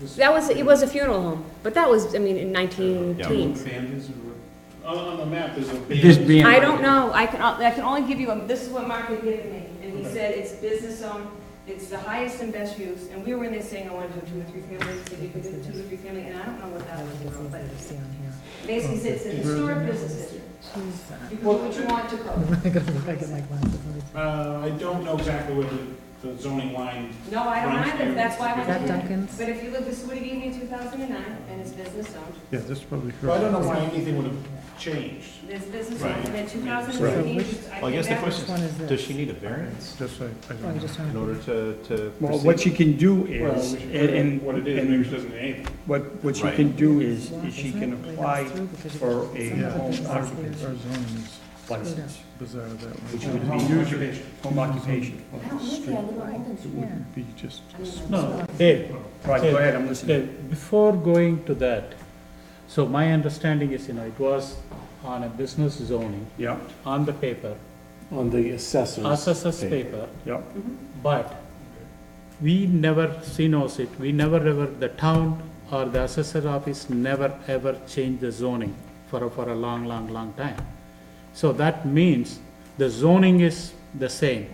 This- That was, it was a funeral home, but that was, I mean, in nineteen Yeah. teens. Abandons or, on, on the map, there's a. This being. I don't know, I can, I can only give you, a- this is what Mark had given me, and he said it's business zone, it's the highest and best use, and we were in there saying, I want to do two or three families, if you could do two or three family, and I don't know what that was, but basically, it's a historic business district. You can do what you want to code. abandoned. Uh, I don't know exactly where the, the zoning line, No, I don't either, that's why I Is went that to, Duncan's? but if you look, this would have given you two thousand and nine, and it's business zone, Yeah, this is probably well, I don't know correct. why anything would have changed. there's business zone, Right. and then two thousand Right. and fifteen, I Well, I think guess the that was. question one is is, this? does she need a variance Just like, I Oh, don't you know. just in order want. to, to Well, proceed? what you can do Well, we is, should and, put and. what it is, and maybe she doesn't name it. What, what she Right. can do is, is she can apply for a Yeah. home Our occupancy zone is license, bizarre that way. Which It would wouldn't be Home usually- occupation. home occupation. I don't live there, I live on Holden It Street. wouldn't be just. I mean, that's- No, Dave, Right, go ahead, I'm listening. Dave, before going to that, so my understanding is, you know, it was on a business zoning, Yeah, on the paper, On the assessors. assessors paper, yeah. but we never, CNOs it, we never ever, the town or the assessor office never ever changed the zoning for, a- for a long, long, long time. So that means the zoning is the same,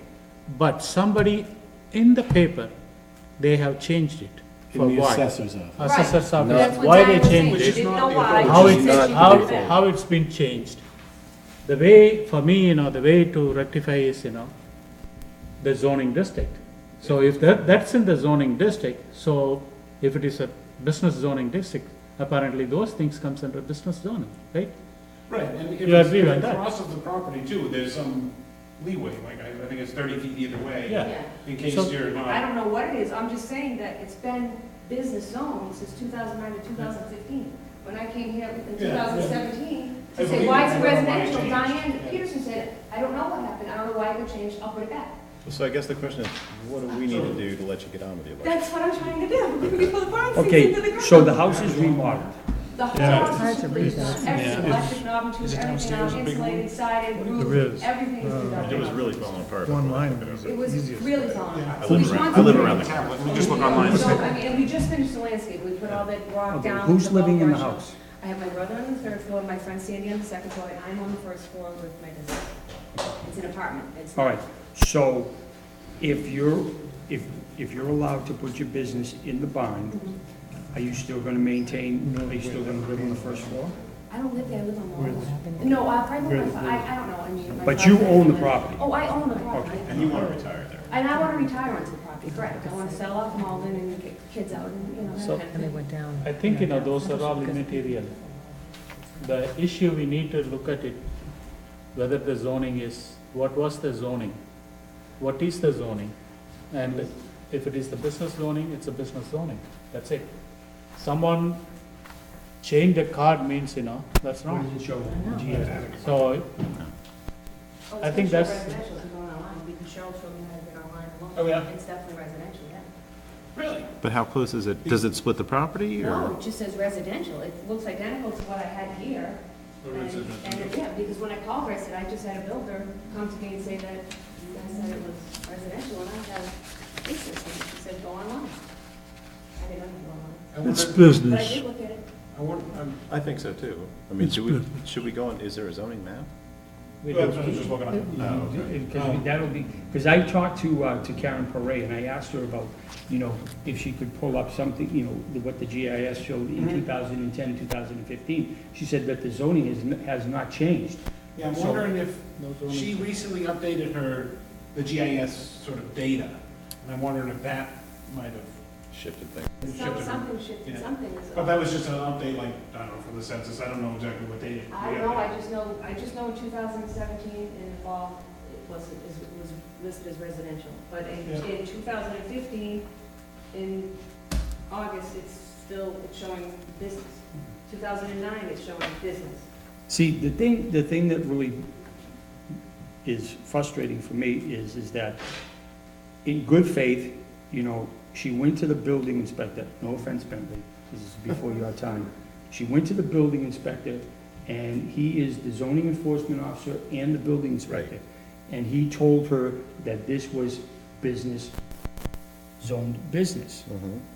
but somebody in the paper, they have changed it. For why? office. Assessor's Right. That's office, what why Diane they was saying. changed She it, didn't It's know not why. the how She it's, said she how, didn't know. how it's been changed. The way, for me, you know, the way to rectify is, you know, the zoning district. So if that, that's in the zoning district, so if it is a business zoning district, apparently those things comes under business zoning, right? Right, and if You it's agree with that? across of the property too, there's some leeway, like, I, I think it's thirty feet either way. Yeah. Yeah. In case So- you're I not, don't know what it is, I'm just saying that it's been business zone since two thousand nine to two thousand fifteen. When I came here in two Yeah, yeah. thousand seventeen, I to say, believe why it, I don't is it know why it residential, changed. Diane Yeah. Peterson said, I don't know what happened, I don't know why it changed, I'll put it back. So I guess the question is, what do we need to do to let you get on with your life? That's what I'm trying to do, before the barn sinks into the Okay, ground. so the house is remodeled. The whole Yeah. house Hard is to completely, read that. everything, Yeah. electric, knob, tube, Is it everything, downstairs, a big insulated, sided, There roof, is. everything is Uh, through It was really falling apart. One line is It was easiest. really falling Yeah. apart. I live around, I live around the corner. let me just look online. So, I mean, and we just finished the landscape, we put all that rock Okay, down. who's above living in the brush. house? I have my brother on the third floor, my friend Sandy on the second floor, and I'm on the first floor with my business. It's an apartment, it's. All right, so if you're, if, if you're allowed to put your business in the barn, Mhm. are you still gonna maintain, No, are you still wait, gonna live on the that- first floor? I don't live there, I live on Long Where Island. No, I probably, live on- I, I don't know, I mean. my But you father- own the property. Oh, I own the property. And you want to retire there. And I wanna retire onto the property, correct, I wanna sell off Malden and get kids out and, you know, that So- kind of And they thing. went down. I think, you know, those are all immaterial. The issue we need to look at it, whether the zoning is, what was the zoning? What is the zoning? And if it is the business zoning, it's a business zoning, that's it. Someone change the card means, you know, that's What wrong. does it show? No. Yeah. So, Oh, I think it's that's- Residential, if you go online, we can show, show you how to get online. alone. Oh, yeah? It's definitely residential, yeah. Really? But how close is it? Does it split the property No, it just says residential, it looks identical to what I had here. Or And, is it a- and, yeah, because when I called her, I said, I just had a builder come to me and say that you guys said it was residential, and I had a business, and she said, go online. I didn't go online, I It's wonder- but I business. did look at it. I wonder, I'm, I think so too. I mean, It's do we, should we go on, is there a zoning map? we well, do. I'm just looking on. Oh, okay. Because that'll be, because I talked to, uh, to Karen Paray, and I asked her about, you know, if she could pull up something, you know, the- what the GIS showed in Mm-hmm. Mhm. 2010, 2015. She said that the zoning is, n- has not changed. Yeah, I'm wondering if she recently updated her, the GIS sort of data, and I'm wondering if that might have Shifted thing. Some, shifted her. something shifted, Yeah. something is But that was just an update, like, I don't know, from the census, I don't know exactly what data. I we don't know, updated. I just know, I just know in 2017 in the fall, it was, it was listed as residential. But in, Yeah. in 2015, in August, it's still, it's showing business. 2009, it's showing business. See, the thing, the thing that really is frustrating for me is, is that in good faith, you know, she went to the building inspector, no offense, Bentley, this is before your time. She went to the building inspector, and he is the zoning enforcement officer and the building inspector. And he told her that this was business, zoned business. Mm-hmm.